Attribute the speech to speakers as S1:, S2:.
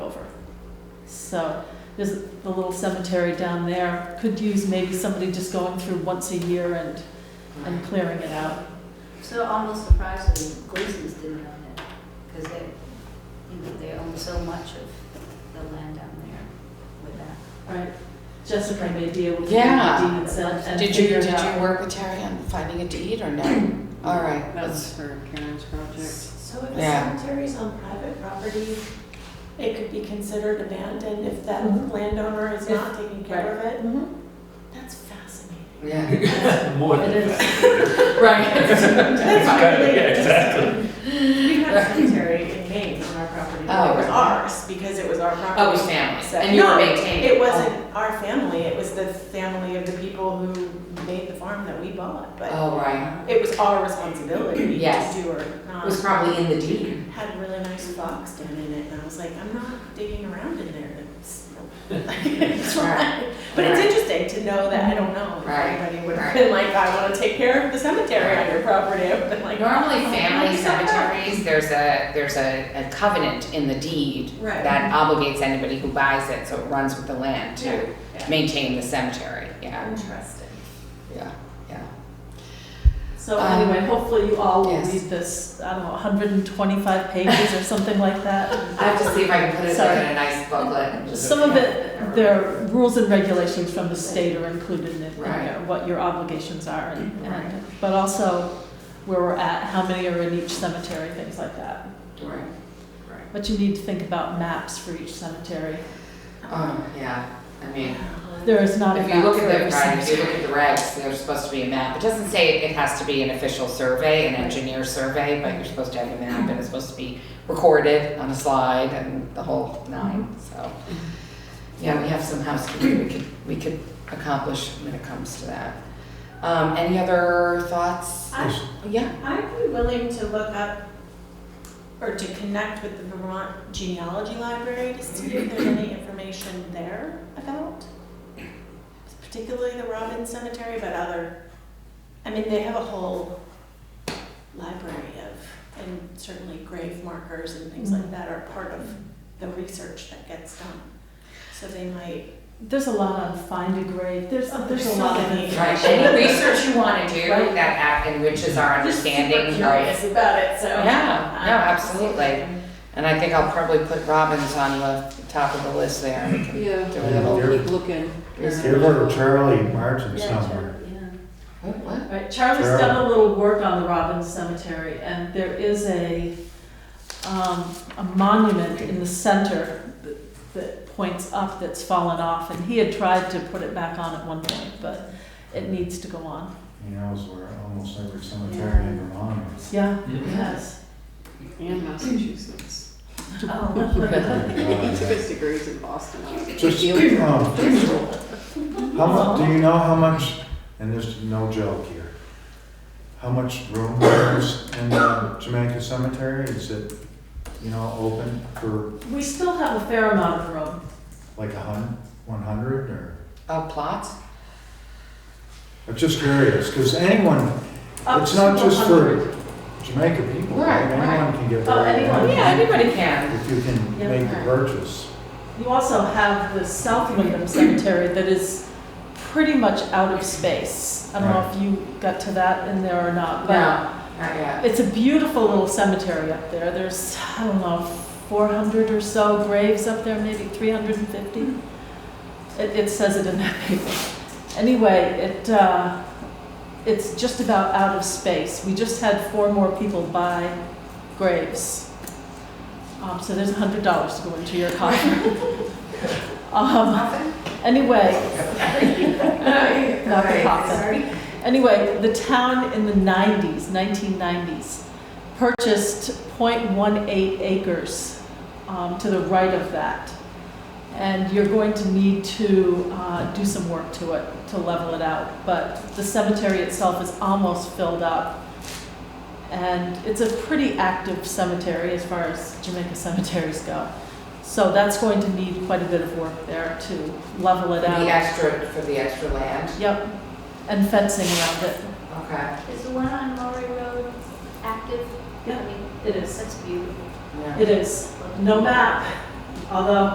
S1: So there's the little cemetery down there, could use maybe somebody just going through once a year and, and clearing it out.
S2: So almost surprisingly, Gleason's didn't own it, because they, you know, they own so much of the land down there with that.
S1: Right. Jessica may be able to. do
S3: Yeah.
S1: deeds and- and
S3: Did you,
S1: figure
S3: did
S1: it
S3: you
S1: out.
S3: work with Terry on finding a deed or no? All right,
S4: That was
S3: that's,
S4: for Karen's project.
S5: So if the
S3: Yeah.
S5: cemetery's on private property, it could be considered abandoned if that
S6: Mm-hmm.
S1: Mhm.
S5: landowner is not taking care of it?
S1: Mhm.
S5: That's fascinating.
S3: yeah.
S6: More
S1: It
S6: than
S1: is.
S6: that.
S3: Right.
S5: That's
S6: kinda-
S5: really
S6: yeah,
S5: interesting. We had a cemetery in Maine on our property, but
S3: Oh,
S5: it was
S3: right.
S5: ours because it was our property.
S3: Oh, it was family,
S5: So-
S3: and you were
S5: No,
S3: maintaining it. Oh,
S5: It wasn't our family, it was the family of the people who made the farm that we bought, but uh-huh.
S3: Oh, right.
S5: it was our responsibility
S3: Yes.
S5: to do um, or not.
S3: It was probably in the deed.
S5: had a really nice box down in it, and I was like, I'm not digging around in there. It's, it's fine. But it's
S3: Right.
S5: interesting to know that I don't know if
S3: Right.
S5: anybody would
S3: Right.
S5: have been like, I want to take care of the cemetery on your property. I've been like,
S3: Normally,
S5: "Oh,
S3: family
S5: what's that?"
S3: cemeteries, there's a, there's a, a covenant in the deed
S5: Right.
S3: that obligates anybody who buys it, so it runs with the land
S5: Yeah,
S3: to
S5: yeah.
S3: maintain the cemetery, yeah,
S5: Interesting.
S3: yeah, yeah.
S1: So
S3: Um,
S1: anyway, hopefully you all will
S3: yes.
S1: read this, I don't know, hundred and twenty-five pages or something like that.
S3: I have to see if I can put it
S1: Sorry.
S3: in a nice booklet. and just-
S1: Some of it, their rules and regulations from the state are included in it, you know,
S3: Right.
S1: what your obligations are and,
S3: Right.
S1: and, but also where we're at, how many are in each cemetery, things like that.
S3: Right, right.
S1: But you need to think about maps for each cemetery.
S3: Oh, yeah, I mean,
S1: There is not a
S3: If you
S1: map
S3: look
S1: for
S3: at the,
S1: every
S3: right, if you
S1: cemetery.
S3: look at the regs, there's supposed to be a map. It doesn't say it has to be an official survey, an engineer survey, but you're supposed to have a map and it's supposed to be recorded on a slide and the whole nine, so. Yeah, we have some housekeeping we could, we could accomplish when it comes to that. Um, any other thoughts?
S5: I-
S3: Yeah,
S5: I'd be willing to look up or to connect with the Vermont Genealogy Library to see if there's any information there about, particularly the Robin Cemetery, but other, I mean, they have a whole library of, and certainly grave markers and things like that are part of the research that gets done. So they might,
S1: There's a lot on find a grave, there's,
S5: Oh,
S1: there's a
S5: there's
S1: lot
S5: so
S1: of
S5: many.
S1: information.
S3: right, any research you wanna do
S1: Right.
S3: that act enriches our
S5: they're super
S3: understanding, right?
S5: curious about it, so.
S3: Yeah, no,
S5: um,
S3: absolutely. And I think I'll probably put Robbins on the top of the list there. We can
S4: Yeah,
S3: do a little-
S6: You're-
S4: keep looking.
S6: They were Charlie Martin somewhere.
S3: What, what?
S1: Right, Charlie's
S6: Sure.
S1: done a little work on the Robbins Cemetery, and there is a, um, a monument in the center that- that points up that's fallen off, and he had tried to put it back on at one point, but it needs to go on.
S6: You know, it's where almost every cemetery in Vermont is.
S1: Yeah, it
S6: Mm-hmm.
S1: has.
S4: And Massachusetts.
S1: Oh.
S4: He took
S6: Uh,
S4: his degrees in Boston.
S6: Just, um, how much, do you know how much, and there's no joke here, how much room there is in the Jamaica Cemetery? Is it, you know, open for
S1: We still have a fair amount of room.
S6: like a hun, one hundred or?
S3: Uh, plots?
S6: I'm just curious, because anyone,
S1: Up
S6: it's
S1: to
S6: not just
S1: 100.
S6: for Jamaica people, right?
S3: Right, right.
S6: Anyone can get
S1: Oh,
S6: buried.
S1: anyone,
S3: Yeah, anybody can.
S6: If you can
S1: Yeah.
S6: make the purchase.
S1: You also have the South Wyndham Cemetery that is pretty much out of space. I don't know
S6: Right.
S1: if you got to that in there or not, but.
S3: not yet.
S1: It's a beautiful little cemetery up there. There's, I don't know, 400 or so graves up there, maybe 350. It, it says it in that paper. Anyway, it, uh, it's just about out of space. We just had four more people buy graves. Um, so there's $100 to go into your coffin. um, anyway, not the coffin. Anyway, the town in the 90s, 1990s, purchased .18 acres um, to the right of that. And you're going to need to uh, do some work to it, to level it out. But the cemetery itself is almost filled up. And it's a pretty active cemetery as far as Jamaica cemeteries go. So that's going to need quite a bit of work there to level it
S3: The
S1: out.
S3: extra, for the extra land,
S1: Yep, and fencing around it.
S3: okay.
S2: Is the one on Maury Road active?
S1: Yeah,
S2: I mean,
S1: it is.
S2: That's beautiful.
S3: yeah.
S1: It is, no map, although